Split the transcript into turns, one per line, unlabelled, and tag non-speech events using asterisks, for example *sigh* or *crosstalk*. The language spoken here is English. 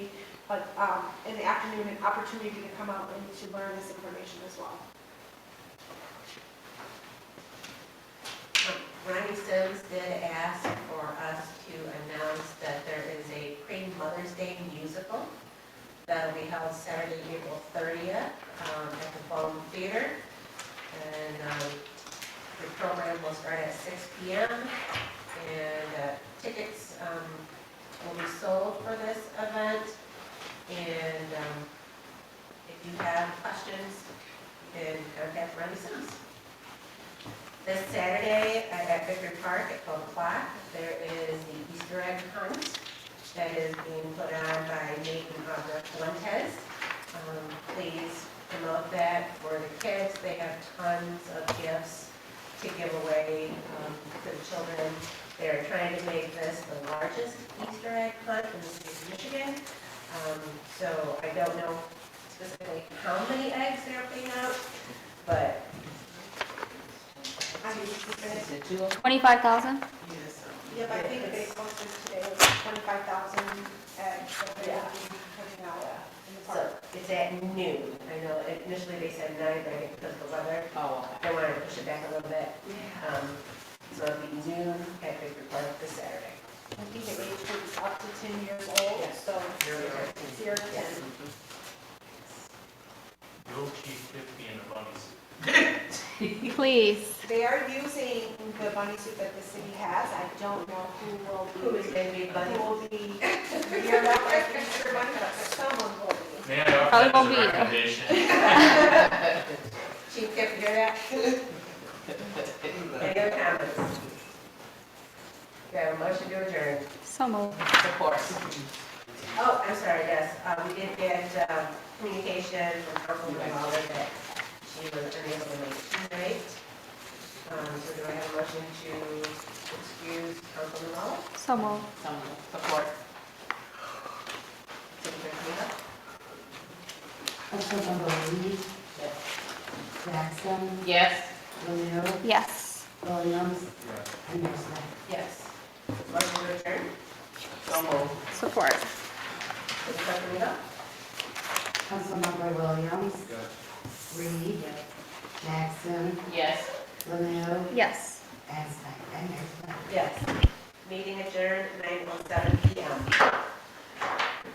but um, in the afternoon, an opportunity to come out and to learn this information as well.
Ronnie Sims did ask for us to announce that there is a pre-Mother's Day musical that'll be held Saturday, April 30th um, at the Bowman Theater. And um, the program will start at 6 PM. And uh, tickets um, will be sold for this event. And um, if you have questions, then contact Ronnie Sims. This Saturday uh, at Victor Park at 12 o'clock, there is the Easter egg hunt that is being put on by Nate and Audra Fuentes. Um, Please promote that for the kids. They have tons of gifts to give away um, to the children. They're trying to make this the largest Easter egg hunt in the state of Michigan. Um, So I don't know specifically how many eggs they're putting out, but
I mean, it's been-
Twenty-five thousand?
Yep, I think they posted today was 25,000 and so they're
Yeah.
putting out in the
So
park.
it's at noon. I know initially they said nine, but I think because of the weather,
Oh,
they wanted to push it back a little bit. Um, So it'll be noon at Victor Park this Saturday.
I think the age group is up to 10 years old,
Yes.
so zero to 10.
Little Chief Tippy and the Bunnies.
Please.
They are using the bunny suit that the city has. I don't know who will be.
Who is going to be
*laughs* Who
bunny?
will be, you're not going to be sure, but someone will be.
May I
Probably won't
offer that as
be
a
either.
recommendation?
Chief Tip, you hear that? *laughs* Any other comments? Do I have a motion to adjourn?
So moved.
Support.
Oh, I'm sorry, yes. Uh, We did get um, communication from Councilwoman Lawler that she was unable to make tonight. Um, So do I have a motion to excuse Councilwoman Lawler?
So moved.
Some support.
City Clerk Camino?
Councilmember Reed, Jackson,
Yes.
Romero,
Yes.
Williams,
Yeah.
and Mayor Snyder.
Yes. Motion to adjourn?
So moved.
Support.
City Clerk Camino?
Councilmember Williams, Reed, Jackson,
Yes.
Romero,
Yes.
oh